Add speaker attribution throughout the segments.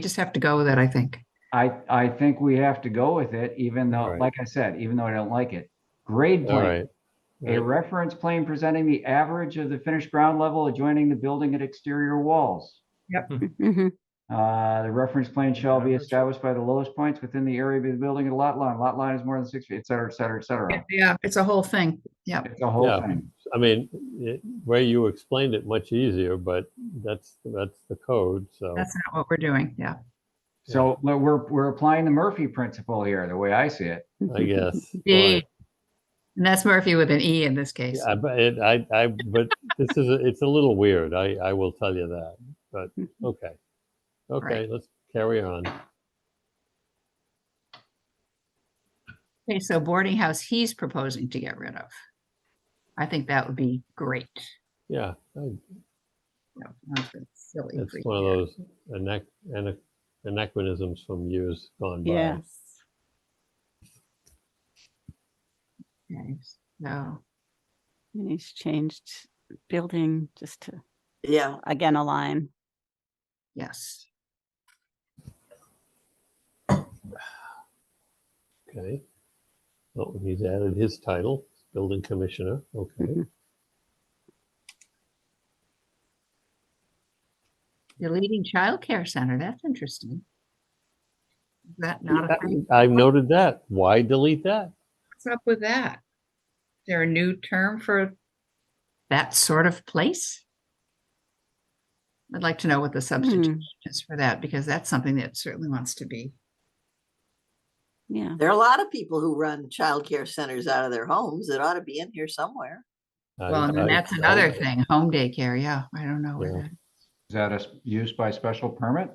Speaker 1: just have to go with it, I think.
Speaker 2: I, I think we have to go with it, even though,
Speaker 3: Alright.
Speaker 2: like I said, even though I don't like it. Grade
Speaker 3: All
Speaker 2: plane,
Speaker 3: right.
Speaker 2: a reference plane presenting the average of the finished ground level adjoining the building and exterior walls.
Speaker 4: Mhm.
Speaker 2: Uh, the reference plane shall be
Speaker 5: Average.
Speaker 2: established by the lowest points within the area of the building and lot line. Lot line is more than six feet, et cetera, et cetera, et cetera.
Speaker 1: Yeah, it's a whole thing. Yeah.
Speaker 2: It's a whole
Speaker 3: Yeah.
Speaker 2: thing.
Speaker 3: I mean, it, way you explained it much easier, but that's, that's the code, so.
Speaker 1: That's not what we're doing. Yeah.
Speaker 2: So but we're, we're applying the Murphy principle here, the way I see it.
Speaker 3: I guess.
Speaker 1: Indeed. And that's Murphy with an E in this case.
Speaker 3: Yeah, but it, I, I, but this is, a- it's a little weird. I, I will tell you that, but okay. Okay, let's carry on.
Speaker 1: Okay, so boarding house he's proposing to get rid of. I think that would be great.
Speaker 3: Yeah, I-
Speaker 1: No, not the silly
Speaker 3: it's
Speaker 1: freak
Speaker 3: one of
Speaker 1: there.
Speaker 3: those anach, ana- anachronisms from years gone by.
Speaker 4: Yes.
Speaker 1: Okay, So,
Speaker 4: And he's changed building just to,
Speaker 6: Yeah,
Speaker 4: again, align.
Speaker 1: yes.
Speaker 3: Okay. Oh, he's added his title, building commissioner. Okay.
Speaker 1: Deleting childcare center, that's interesting. Is That not, a thing?
Speaker 3: I've noted that. Why delete that?
Speaker 1: what's up with that? Is there a new term for that sort of place? I'd like to know what the substitute
Speaker 4: Hmm,
Speaker 1: is for that, because that's something that certainly wants to be.
Speaker 4: Mm-hmm. Yeah,
Speaker 6: there are a lot of people who run childcare centers out of their homes. It ought to be in here somewhere.
Speaker 3: I-
Speaker 1: Well, and then
Speaker 3: I-
Speaker 1: that's
Speaker 3: I-
Speaker 1: another thing, home daycare, yeah, I don't know where
Speaker 3: Yeah.
Speaker 1: that,
Speaker 2: Is that a s- use by special permit?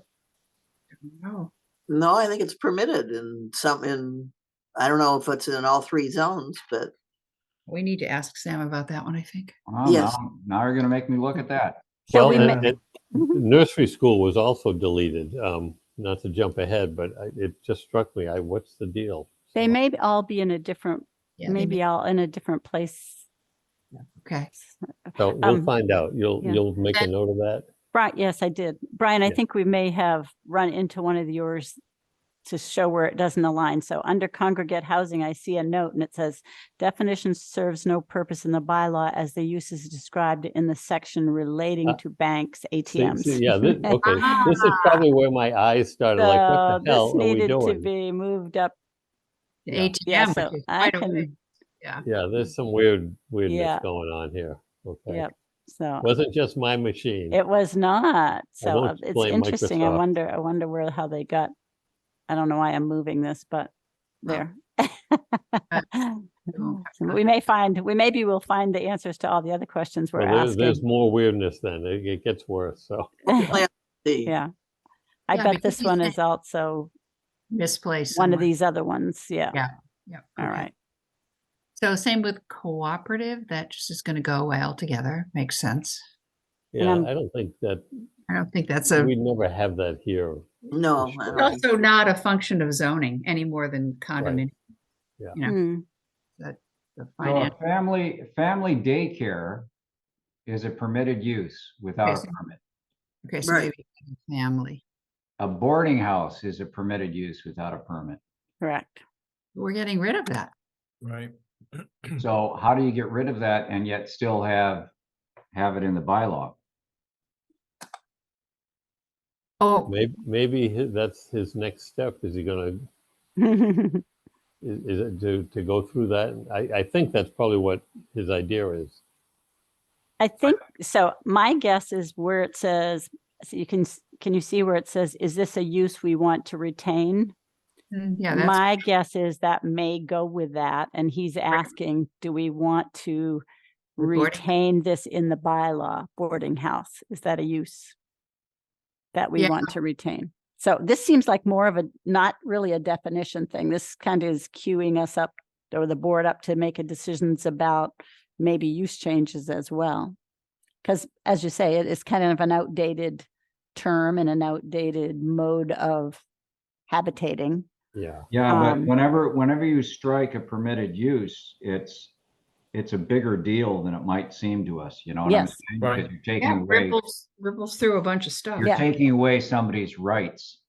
Speaker 1: no.
Speaker 6: No, I think it's permitted in some in, I don't know if it's in all three zones, but
Speaker 1: We need to ask Sam about that one, I think.
Speaker 2: Well,
Speaker 6: Yes.
Speaker 2: now- Now you're gonna make me look at that.
Speaker 3: Well,
Speaker 4: we Mm-hmm.
Speaker 3: and- and nursery school was also deleted. Um, not to jump ahead, but I, it just struck me. I, what's the deal?
Speaker 4: they
Speaker 3: So,
Speaker 4: may b- all be in a different,
Speaker 1: Yeah, they
Speaker 4: maybe all in a different place.
Speaker 1: Okay,
Speaker 3: So we'll
Speaker 4: um,
Speaker 3: find out. You'll,
Speaker 4: yeah.
Speaker 3: you'll make a
Speaker 1: Okay.
Speaker 3: note of that.
Speaker 4: Brian, yes, I did. Brian, I
Speaker 3: Yeah.
Speaker 4: think we may have run into one of yours to show where it doesn't align. So under congregate housing, I see a note and it says definition serves no purpose in the bylaw as the use is described in the section relating
Speaker 3: Ah.
Speaker 4: to banks,
Speaker 3: See- see,
Speaker 4: ATMs.
Speaker 3: Yeah, this, okay. This is probably where my eyes started, like,
Speaker 4: So
Speaker 3: what the
Speaker 4: this
Speaker 3: hell are we
Speaker 4: needed to
Speaker 3: doing?
Speaker 4: be moved up.
Speaker 1: The
Speaker 3: Yeah.
Speaker 4: Yeah,
Speaker 1: ATM,
Speaker 4: so
Speaker 1: which is
Speaker 4: I
Speaker 1: quite a way.
Speaker 4: can,
Speaker 3: Yeah, there's some weird weirdness
Speaker 4: Yeah.
Speaker 3: going on here. Okay.
Speaker 4: yep, so
Speaker 3: Wasn't just my machine.
Speaker 4: it was not. So
Speaker 3: won't
Speaker 4: uh, it's
Speaker 3: blame
Speaker 4: interesting. I
Speaker 3: Microsoft.
Speaker 4: wonder, I wonder where, how they got. I don't know why I'm moving this, but
Speaker 1: Well,
Speaker 4: there.
Speaker 1: won't have
Speaker 4: So
Speaker 1: to.
Speaker 4: We may find, we maybe we'll find the answers to all the other questions we're
Speaker 3: Well, there's, there's
Speaker 4: asking.
Speaker 3: more weirdness then. It, it gets worse. So
Speaker 6: plan C.
Speaker 4: Yeah. I
Speaker 1: Yeah,
Speaker 4: bet
Speaker 1: because
Speaker 4: this
Speaker 1: he's
Speaker 4: one
Speaker 1: saying-
Speaker 4: is also
Speaker 1: misplaced.
Speaker 4: one of
Speaker 1: somewhere.
Speaker 4: these other ones. Yeah.
Speaker 1: Yeah, Yeah.
Speaker 4: All
Speaker 1: okay.
Speaker 4: right.
Speaker 1: So same with cooperative, that just is gonna go away altogether, makes sense.
Speaker 3: yeah,
Speaker 4: um,
Speaker 3: I don't think that
Speaker 1: I don't think that's a,
Speaker 3: we never have that here.
Speaker 6: No, I
Speaker 3: sure.
Speaker 6: don't think-
Speaker 1: also not a function of zoning any more than condominium.
Speaker 3: Yeah.
Speaker 1: You know,
Speaker 4: Mm,
Speaker 1: the
Speaker 2: So a
Speaker 1: finance,
Speaker 2: family, family daycare is a permitted use without a
Speaker 1: Okay.
Speaker 2: permit.
Speaker 1: okay, so
Speaker 6: Right.
Speaker 1: maybe family.
Speaker 2: A boarding house is a permitted use without a permit.
Speaker 4: Correct.
Speaker 1: We're getting rid of that.
Speaker 5: Right.
Speaker 2: So how do you get rid of that and yet still have, have it in the bylaw?
Speaker 1: Oh,
Speaker 3: Maybe, maybe hi- that's his next step. Is he going to
Speaker 4: Right.
Speaker 3: is, is it to, to go through that? And I, I think that's probably what his idea is.
Speaker 4: I think, so my guess is where it says, so you can, s- can you see where it says, is this a use we want to retain?
Speaker 1: mm, yeah, that's,
Speaker 4: My guess is that may go with that. And he's asking, do we want to
Speaker 1: With boarding-
Speaker 4: retain this in the bylaw, boarding house? Is that a use that we
Speaker 1: Yeah.
Speaker 4: want to retain? So this seems like more of a, not really a definition thing. This kind of is queuing us up or the board up to make a decisions about maybe use changes as well. Because as you say, it is kind of an outdated term and an outdated mode of habitating.
Speaker 3: Yeah.
Speaker 2: Yeah, but
Speaker 4: Um,
Speaker 2: whenever, whenever you strike a permitted use, it's, it's a bigger deal than it might seem to us, you know? what I'm
Speaker 4: Yes.
Speaker 2: saying?
Speaker 5: Right.
Speaker 2: Because you're taking
Speaker 1: yeah,
Speaker 2: away,
Speaker 1: ripples, ripples through a bunch of stuff.
Speaker 2: you're taking away somebody's rights.